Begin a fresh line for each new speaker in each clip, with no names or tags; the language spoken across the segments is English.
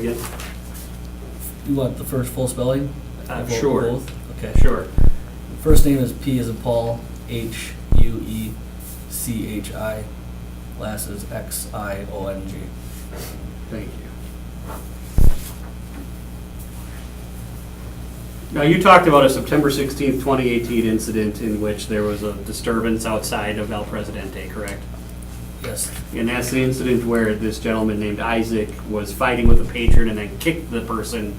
again?
You want the first full spelling?
Uh,
Of both-
sure.
both? Okay.
Sure.
First name is P as in Paul, H U E C H I. Last is X I O N G.
Thank you. Now, you talked about a September 16th, 2018 incident in which there was a disturbance outside of El Presidente, correct?
Yes,
And that's the incident where this gentleman named Isaac was fighting with a patron and then kicked the person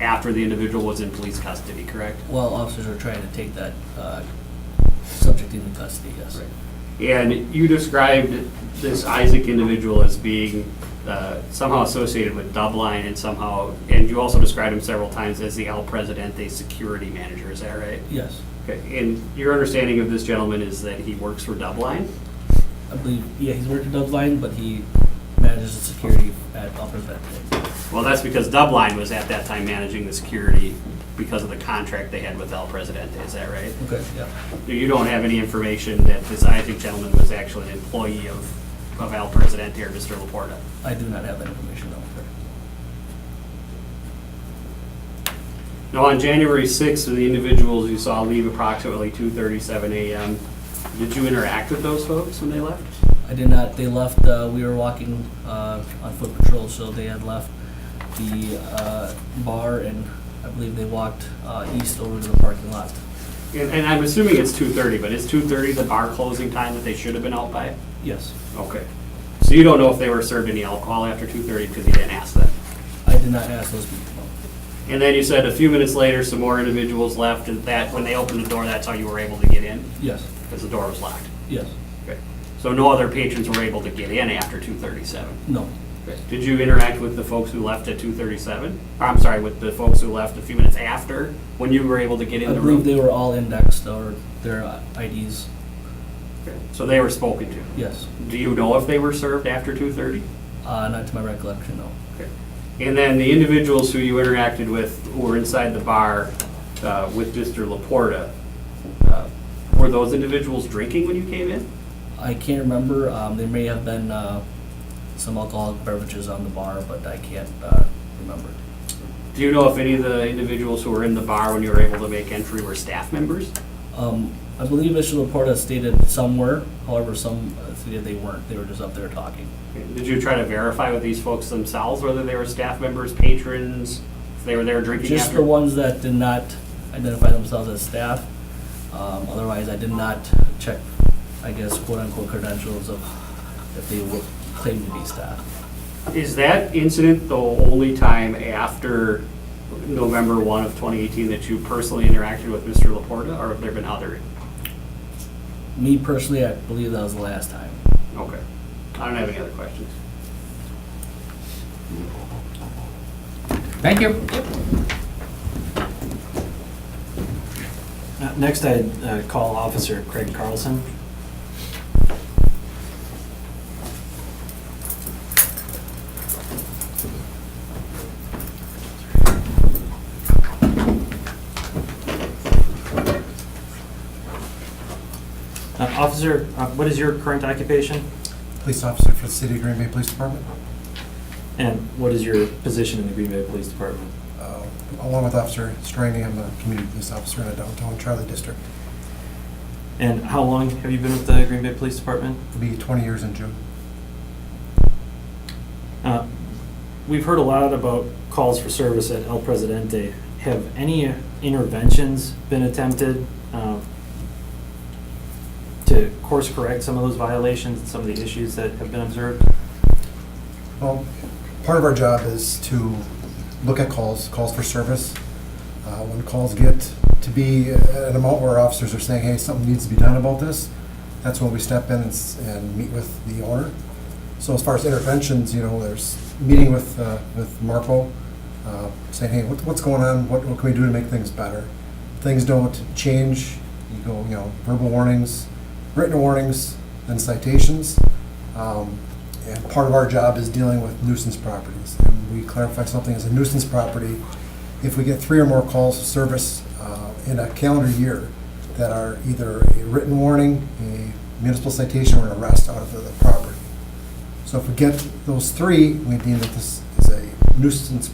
after the individual was in police custody, correct?
well, officers are trying to take that uh, subject into custody, yes.
And you described this Isaac individual as being uh, somehow associated with Dubline and somehow, and you also described him several times as the El Presidente security manager, is that right?
Yes,
Okay, and your understanding of this gentleman is that he works for Dubline?
I believe, yeah, he's worked at Dove's Line, but he manages the security at Upper Bentley.
Well, that's because Dubline was at that time managing the security because of the contract they had with El Presidente, is that right?
Okay, yeah.
You don't have any information that this Isaac gentleman was actually an employee of, of El Presidente or Mr. Laporta?
I do not have that information, though.
Now, on January 6th, the individuals you saw leave approximately 2:37 a.m., did you interact with those folks when they left?
I did not, they left, uh, we were walking, uh, on foot patrol, so they had left the, uh, bar and I believe they walked, uh, east over to the parking lot.
And and I'm assuming it's 2:30, but is 2:30 the bar closing time that they should have been out by?
Yes,
Okay. So you don't know if they were served any alcohol after 2:30 because you didn't ask them?
I did not ask those people.
And then you said a few minutes later, some more individuals left, and that, when they opened the door, that's how you were able to get in?
Yes,
Because the door was locked?
yes,
Okay. So no other patrons were able to get in after 2:37?
no,
Did you interact with the folks who left at 2:37? Or, I'm sorry, with the folks who left a few minutes after, when you were able to get
I
in the
believe they
room?
were all indexed or their uh, IDs,
So they were spoken to.
yes,
Do you know if they were served after 2:30?
uh, not to my recollection, no.
And then the individuals who you interacted with who were inside the bar uh, with Mr. Laporta, uh, were those individuals drinking when you came in?
I can't remember, um, there may have been, uh, some alcoholic beverages on the bar, but I can't, uh, remember.
Do you know if any of the individuals who were in the bar when you were able to make entry were staff members?
Um, I believe Mr. Laporta stated some were, however, some uh, stated they weren't, they were just up there talking.
Did you try to verify with these folks themselves whether they were staff members, patrons, if they were there drinking
Just
after?
the ones that did not identify themselves as staff, um, otherwise I did not check, I guess, quote-unquote credentials of if they were claimed to be staff.
Is that incident the only time after November 1 of 2018 that you personally interacted with Mr. Laporta, or have there been other?
Me personally, I believe that was the last time.
Okay. I don't have any other questions.
Thank you.
Uh, Next, I'd uh, call Officer Craig Carlson. Uh, Officer, uh, what is your current occupation,
Police officer for the City of Green Bay Police Department,
and what is your position in the Green Bay Police Department?
Uh, along with Officer Straney, I'm a community police officer in the downtown Charlie District.
And how long have you been with the Green Bay Police Department?
It'll be 20 years in June.
Uh, We've heard a lot about calls for service at El Presidente. Have any interventions been attempted um, to course correct some of those violations and some of the issues that have been observed?
Well, part of our job is to look at calls, calls for service. Uh, When calls get to be an amount where officers are saying, hey, something needs to be done about this, that's when we step in and s- and meet with the owner. So as far as interventions, you know, there's meeting with, uh, with Marco, uh, saying, hey, what- what's going on? What what can we do to make things better? Things don't change, you go, you know, verbal warnings, written warnings, then citations. Um, And part of our job is dealing with nuisance properties. And we clarify something as a nuisance property. If we get three or more calls of service uh, in a calendar year that are either a written warning, a municipal citation, or an arrest out of the property. So if we get those three, we deem that this is a nuisance